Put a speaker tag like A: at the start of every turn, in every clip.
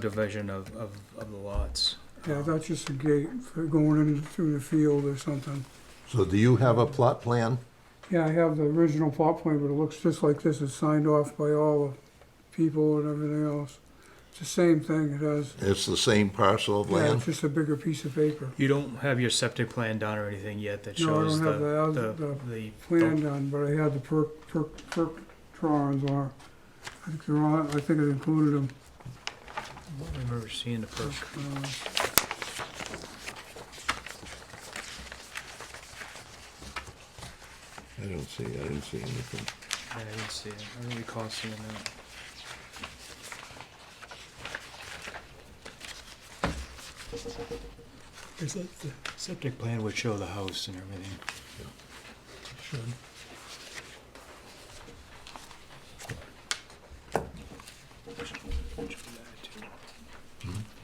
A: subdivision of, of, of the lots.
B: Yeah, that's just a gate for going in through the field or something.
C: So do you have a plot plan?
B: Yeah, I have the original plot plan, but it looks just like this. It's signed off by all the people and everything else. It's the same thing it has.
C: It's the same parcel of
B: Yeah, it's
C: land?
B: just a bigger piece of paper.
A: You don't have your septic plan done or anything yet that
B: No, I
A: shows
B: don't have
A: the, the,
B: that. I have
A: the,
B: Plan
C: Oh.
B: done, but I had the perk, perk, perk drawings are, I think they're on, I think it included them.
A: I don't remember seeing the perk.
B: Uh,
C: I don't see, I didn't see anything.
A: I didn't see it. I don't recall seeing that. Is that the septic plan would show the house and everything?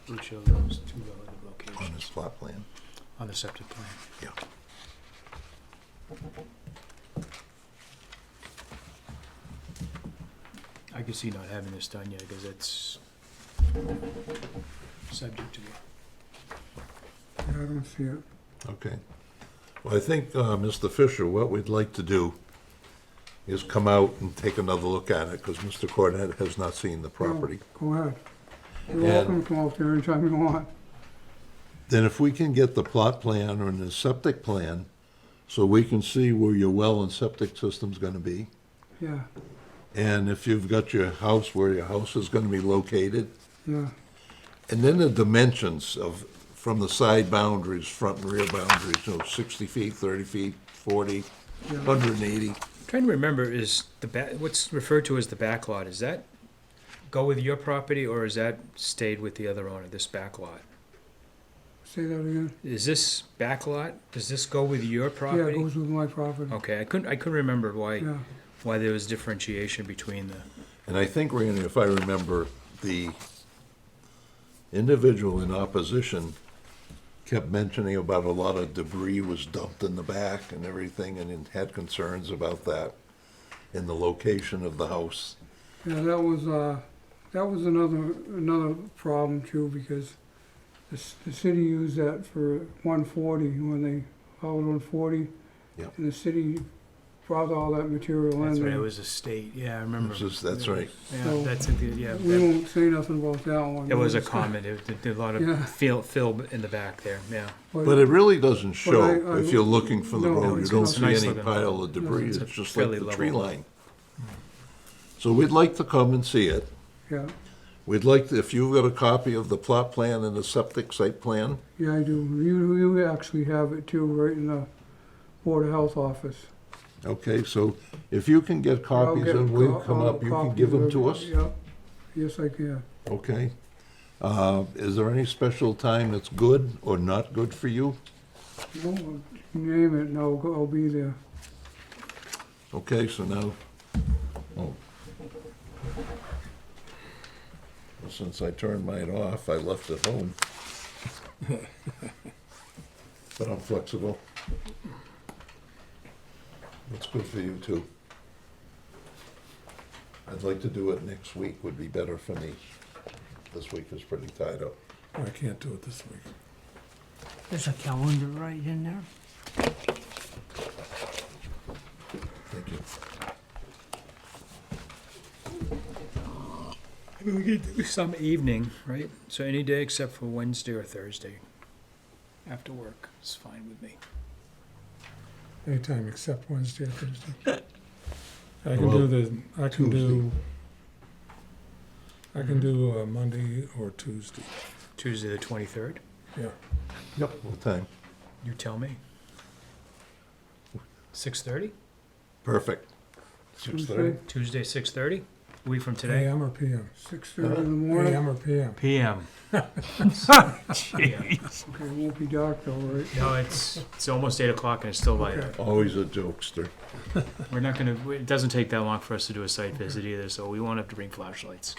A: Would show those two relative
C: On
A: locations
C: his plot plan?
A: on the septic plan.
C: Yeah.
A: I can see not having this done yet because it's subject to
B: Yeah, I don't see it.
C: Okay. Well, I think, uh, Mr. Fisher, what we'd like to do is come out and take another look at it, because Mr. Cornet has not seen the property.
B: No, Go ahead. You're
C: Yeah.
B: welcome to come out there anytime you want.
C: Then if we can get the plot plan or the septic plan, so we can see where your well and septic system's gonna be,
B: Yeah,
C: and if you've got your house, where your house is gonna be located,
B: yeah,
C: And then the dimensions of, from the side boundaries, front and rear boundaries, you know, sixty feet, thirty feet, forty,
B: yeah.
C: hundred and eighty.
A: Trying to remember is the back, what's referred to as the back lot, is that go with your property or is that stayed with the other owner, this back lot?
B: Say that again.
A: Is this back lot, does this go with your
B: Yeah, it
A: property?
B: goes with my property.
A: Okay, I couldn't, I couldn't remember why,
B: Yeah,
A: why there was differentiation between the,
C: And I think, Randy, if I remember, the individual in opposition kept mentioning about a lot of debris was dumped in the back and everything, and it had concerns about that and the location of the house.
B: yeah, that was, uh, that was another, another problem too, because the, c- the city used that for one forty, when they hauled one forty.
C: Yep.
B: And the city brought all that material
A: that's
B: in
A: right, it
B: there.
A: was a state, yeah, I remember.
C: This is- That's right.
A: Yeah,
B: So-
A: that's, it, yeah,
B: We
A: that-
B: won't say nothing about that one.
A: it was a
B: It's-
A: comment, it, there- there a lot
B: Yeah.
A: of fill, fill in the back there, yeah.
C: But it really doesn't show,
B: I-
C: if you're looking for the
B: no,
C: road, you
B: it's
C: don't
B: not.
C: see
A: Nice
C: any
A: looking.
C: pile of debris,
A: It's
C: it's
A: a
C: just like
A: fairly
C: the tree
A: level.
C: line. So we'd like to come and see it.
B: Yeah,
C: We'd like, to- if you've got a copy of the plot plan and the septic site plan,
B: yeah, I do. You, you actually have it too, right in the Board of Health office.
C: okay, so if you can get
B: I'll
C: copies
B: get
C: and we
B: co-
C: come
B: all
C: up, you can
B: copies
C: give them
B: of
C: to
B: it.
C: us,
B: Yep, yes, I can.
C: okay? Uh, Is there any special time that's good or not good for you?
B: No, Name it and I'll, go- I'll be there.
C: Okay, so now, oh. Well, Since I turned mine off, I left it home. But I'm flexible. It's good for you too. I'd like to do it next week, would be better for me. This week is pretty tied up.
D: I can't do it this week.
E: There's a calendar right in there.
C: Thank you.
A: Maybe we could do some evening, right? So any day except for Wednesday or Thursday after work is fine with me.
D: Anytime except Wednesday or Thursday. I can
C: Well,
D: do the, I can do, I can do uh, Monday or Tuesday.
A: Tuesday the twenty-third,
D: Yeah,
C: Yep. What time?
A: you tell me. Six-thirty,
C: Perfect. Six thirty?
A: Tuesday, six-thirty, a week from today?
D: AM or PM?
B: Six thirty in the morning.
C: Uh,
D: AM or PM?
A: PM. Yeah.
B: Okay, it won't be dark though, right?
A: No, it's, it's almost eight o'clock and it's still light. out.
C: Always a jokester.
A: We're not gonna, it doesn't take that long for us to do a site visit either, so we won't have to bring flashlights.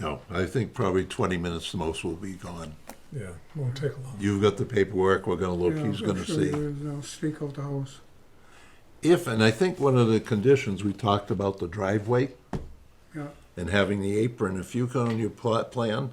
C: No, I think probably twenty minutes the most will be gone.
D: Yeah, won't take long.
C: You've got the paperwork, we're gonna look,
B: Yeah,
C: he's
B: I'm
C: gonna
B: sure
C: see.
B: there is. I'll stake out the house.
C: If, and I think one of the conditions, we talked about the driveway
B: Yeah,
C: and having the apron, if you go on your plot plan